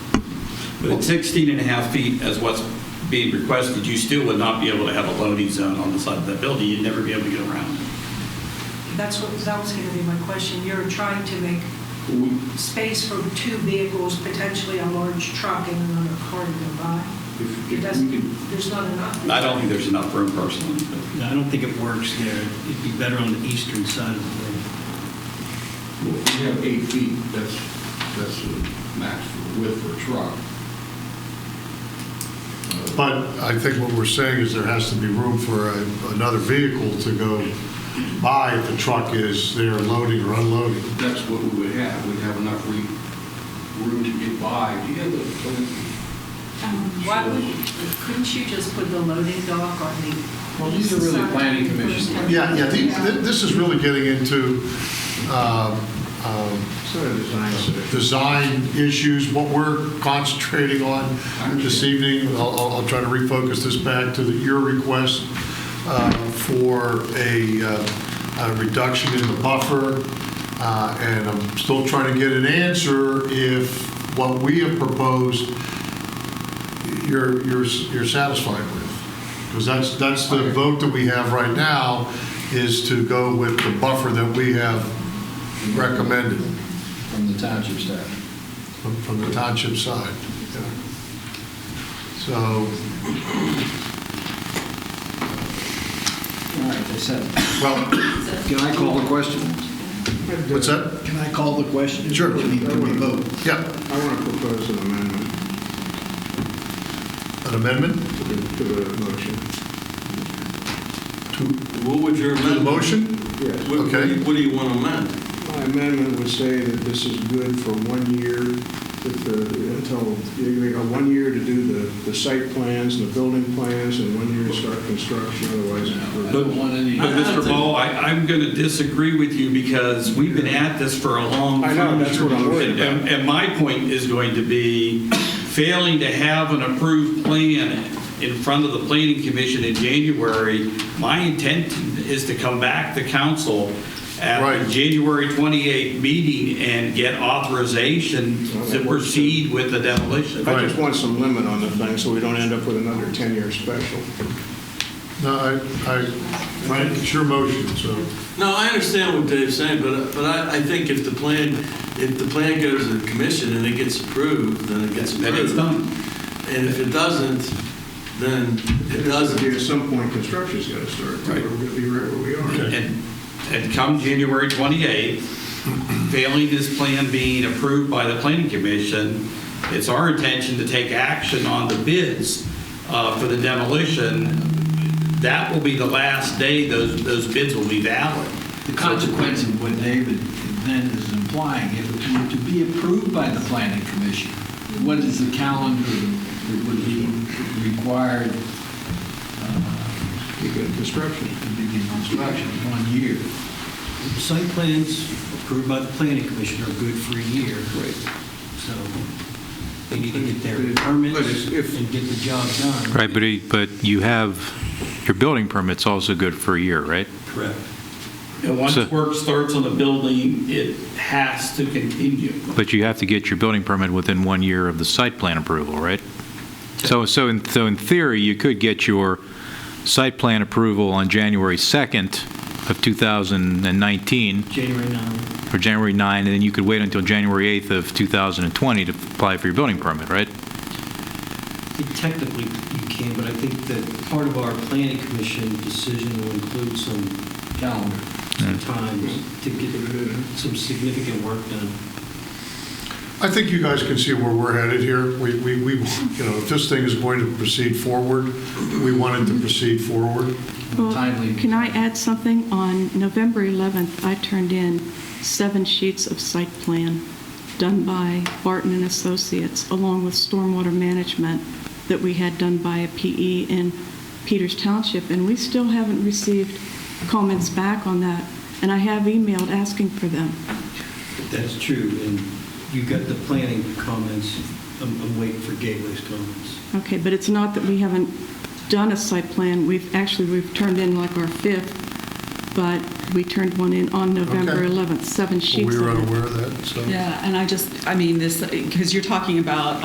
But at 16 and a half feet as what's being requested, you still would not be able to have a loading zone on the side of that building. You'd never be able to get around. That's what, that was going to be my question. You're trying to make We- space for two vehicles, potentially a large truck and another car to go by. If- It if doesn't, we could- there's not enough. I don't think there's enough room personally. but- I don't think it works there. It'd be better on the eastern side of the Well, building. if you have eight feet, that's, that's the max width for a truck. Uh, But I think what we're saying is there has to be room for a- another vehicle to go by if the truck is there loading or unloading. That's what we would have, we'd have enough re- room to get by. Do you have the plan? Um, Why would, couldn't you just put the loading dock on the? Well, these are really east side? planning commission. Yeah, yeah, the- thi- this is really getting into um, um, design issues, what we're concentrating on this evening. I'll- I'll I'll try to refocus this back to the- your request uh, for a uh, a reduction in the buffer, Uh, and I'm still trying to get an answer if what we have proposed, you're you're you're satisfied with. Because that's, that's the vote that we have right now, is to go with the buffer that we have recommended from the township staff. from from the township side. Yeah. So, All right, they said. well, Can I call the question? what's that? Can I call the question? Sure. Can we can we vote? Yeah, I want to propose an amendment an amendment to the, to the motion. to What would your to the amendment? motion? Yes. What- what do you- Okay. What do you want to amend? My amendment would say that this is good for one year, that the, until, you got one year to do the, the site plans and the building plans, and one year to start construction, otherwise. I it's- don't want any. I But don't Mr. think- Bo, I, I'm going to disagree with you because we've been at this for a long. I know, that's what I'm worried about. And and my point is going to be failing to have an approved plan in front of the planning commission in January. My intent is to come back to council at Right. the January 28 meeting and get authorization to proceed with the demolition. I just want some limit on the thing, so we don't end up with another 10-year special. No, I, I, Frank, it's your motion, so. No, I understand what Dave's saying, but, but I, I think if the plan, if the plan goes to the commission and it gets approved, then it gets approved. Then it's done. And if it doesn't, then it At doesn't. some point, construction's got to start, or we're Right. going to be right where we are. And, and come January 28th, failing this plan being approved by the planning commission, it's our intention to take action on the bids uh, for the demolition. That will be the last day those, those bids will be valid. The consequence of what David then is implying, if it were to be approved by the planning commission, what is the calendar that would be required uh, Begin construction. to begin construction? One year. The site plans approved by the planning commission are good for a year, Right. so they need to get their permits and get the job done. Right, but, it- but you have, your building permit's also good for a year, right? Correct. And once So- work starts on the building, it has to continue. But you have to get your building permit within one year of the site plan approval, right? So, so in, so in theory, you could get your site plan approval on January 2nd of 2019, January 9th. or January 9, and then you could wait until January 8th of 2020 to apply for your building permit, right? I think Technically, you can, but I think that part of our planning commission decision will include some calendar, some times to get some significant work done. I think you guys can see where we're headed here. We, we, we, you know, if this thing is going to proceed forward, we want it to proceed forward. Well, Timely. Can I add something? On November 11th, I turned in seven sheets of site plan done by Barton and Associates, along with stormwater management that we had done by a PE in Peters Township, and we still haven't received comments back on that, and I have emailed asking for them. That's true, and you got the planning comments. I'm I'm waiting for Gateway's comments. Okay, but it's not that we haven't done a site plan, we've, actually, we've turned in like our fifth, but we turned one in on November Okay. 11th, seven sheets We of were it. unaware of that, so. Yeah, and I just, I mean, this, because you're talking about